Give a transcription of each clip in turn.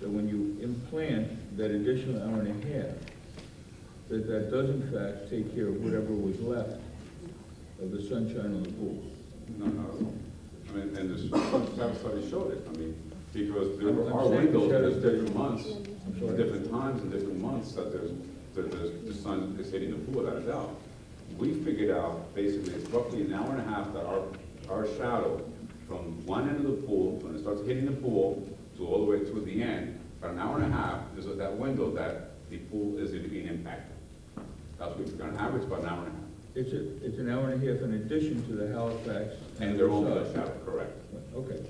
that when you implant that additional hour and a half, that that does in fact take care of whatever was left of the sunshine on the pool. No, not at all. I mean, and the staff study showed it, I mean, because there I'm- were- I'm are saying it shows windows, there's that- different months, I'm sorry. different times and different months that there's, that there's, the sun is hitting the pool without a doubt. We figured out basically it's roughly an hour and a half that our, our shadow from one end of the pool, when it starts hitting the pool, to all the way to the end, about an hour and a half is at that window that the pool is being impacted. That's what we figured, on average about an hour and a half. It's a, it's an hour and a half in addition to the Halifax. And they're all the the shadow, correct. Okay.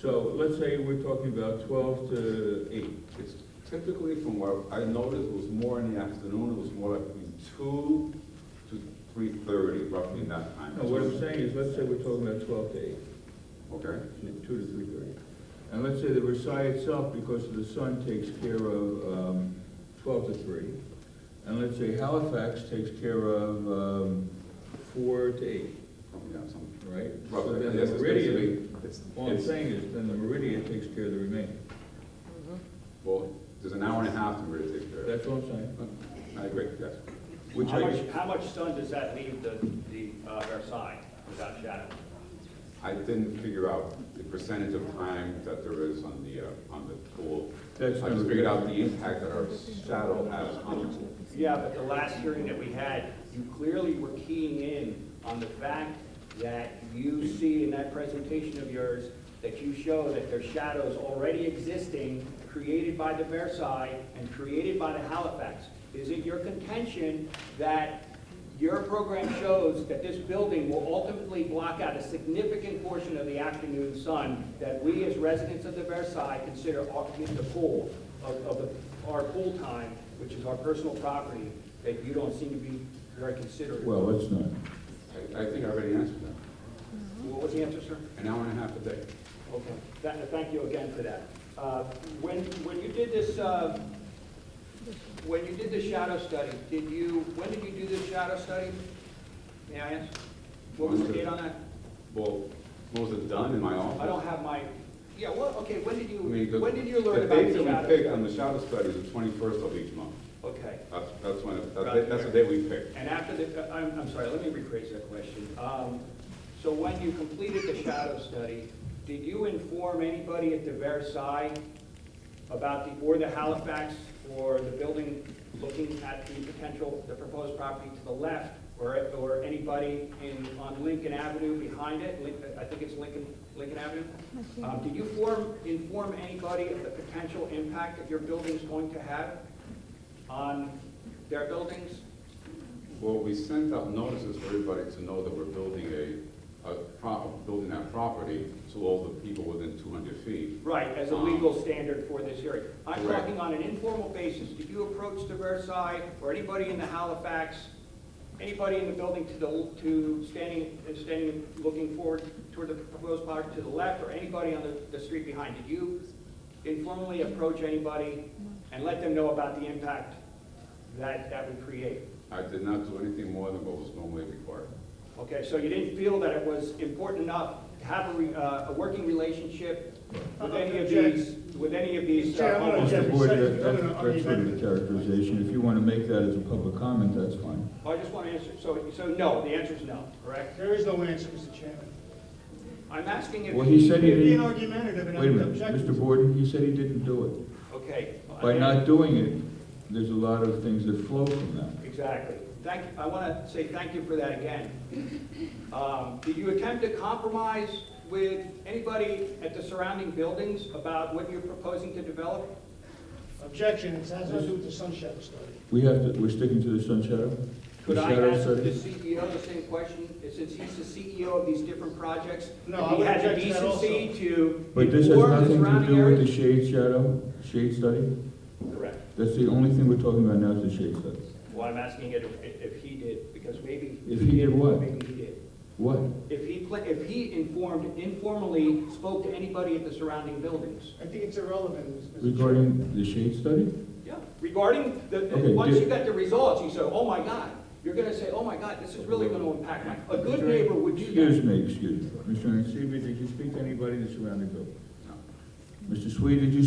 So let's say we're talking about twelve to eight. It's typically from what I noticed, it was more in the afternoon, it was more like between two to three thirty, roughly in that time. No, what I'm saying is, let's say we're talking about twelve to eight. Okay, two to three thirty. And let's say the Versailles itself, because of the sun, takes care of um, twelve to three. And let's say Halifax takes care of um, four to eight, yeah, something. right? So Roughly, then yes, the it's Meridian, basically, it's, all I'm it's, saying is, then the Meridian takes care of the remaining. well, there's an hour and a half to really take care of. it. That's all I'm saying. I agree, yes. Which How I, much, how much sun does that leave the, the uh, Versailles without shadow? I didn't figure out the percentage of time that there is on the, uh, on the pool. That's I just never- figured out the impact that our shadow has on the pool. Yeah, but the last hearing that we had, you clearly were keying in on the fact that you see in that presentation of yours, that you show that there's shadows already existing, created by the Versailles and created by the Halifax. Is it your contention that your program shows that this building will ultimately block out a significant portion of the afternoon sun that we as residents of the Versailles consider occupying the pool of, of the- our pool time, which is our personal property, that you don't seem to be very considerate. What well, it's not. I, I think I already answered that. was the answer, sir? An hour and a half a day. Okay, That- thank you again for that. Uh, When, when you did this, uh, when you did the shadow study, did you, when did you do this shadow study? May I ask? What was the date on that? Well, was it done in my office? I don't have my, yeah, well, okay, when did you, I mean, the- when did you learn about the The date that shadow? we picked on the shadow study is the twenty-first of each month. Okay, That's, that's when, it- Roger. that's, that's the day we picked. and after the, uh, I'm, I'm sorry, let me rephrase that question. Um, So when you completed the shadow study, did you inform anybody at the Versailles about the, or the Halifax, or the building looking at the potential, the proposed property to the left, or, or anybody in, on Lincoln Avenue behind it, Lin- I think it's Lincoln, Lincoln Avenue? Um, Did you form, inform anybody of the potential impact that your building's going to have on their buildings? Well, we sent out notices for everybody to know that we're building a, a pro, building that property to all the people within two hundred feet. Right, as a legal standard for this hearing. I'm Correct. talking on an informal basis. Did you approach the Versailles or anybody in the Halifax, anybody in the building to the, to standing, uh, standing, looking forward toward the proposed project to the left or anybody on the, the street behind? Did you informally approach anybody and let them know about the impact that, that would create? I did not do anything more than what was normally required. Okay, so you didn't feel that it was important enough to have a, re- uh, a working relationship with any of these, with any of these uh, Chair, I'm gonna homeowners? Mr. Jeff, Boyd, say- that- no, no, no, that's- I that's mean, sort of that- a characterization. If you want to make that as a public comment, that's fine. Well, I just want to answer, so, so no, the answer is no, correct? There is no answer, Mr. Chairman. I'm asking if. Well, he said he It'd be an didn't, argumentative and wait a minute, objective. Mr. Boyd, he said he didn't do it. Okay. By not doing it, there's a lot of things that flow from that. Exactly. Thank, I want to say thank you for that again. Um, Did you attempt to compromise with anybody at the surrounding buildings about what you're proposing to develop? Objection, it has nothing to do with the sun shadow study. We have to, we're sticking to the sun shadow? The Could I shadow ask the study? CEO the same question, since he's the CEO of these different projects? No, if I he would had the object to that also. decency to But this has inform the nothing to surrounding do with the shade areas? shadow, shade study? Correct. That's the only thing we're talking about now is the shade study. Well, I'm asking it if, if he did, because maybe. If he did what? Maybe he did. What? If he, pla- if he informed, informally spoke to anybody at the surrounding buildings. I think it's irrelevant, Mr. Chairman. Regarding the shade study? Yeah. Regarding the, the- Okay, once did- you got the results, you say, oh my God, you're gonna say, oh my God, this is really gonna impact my, a good neighbor would do Excuse that. me, excuse me. Mr. Nacivia, did you speak to anybody in the surrounding building? No. Mr. Swede, did you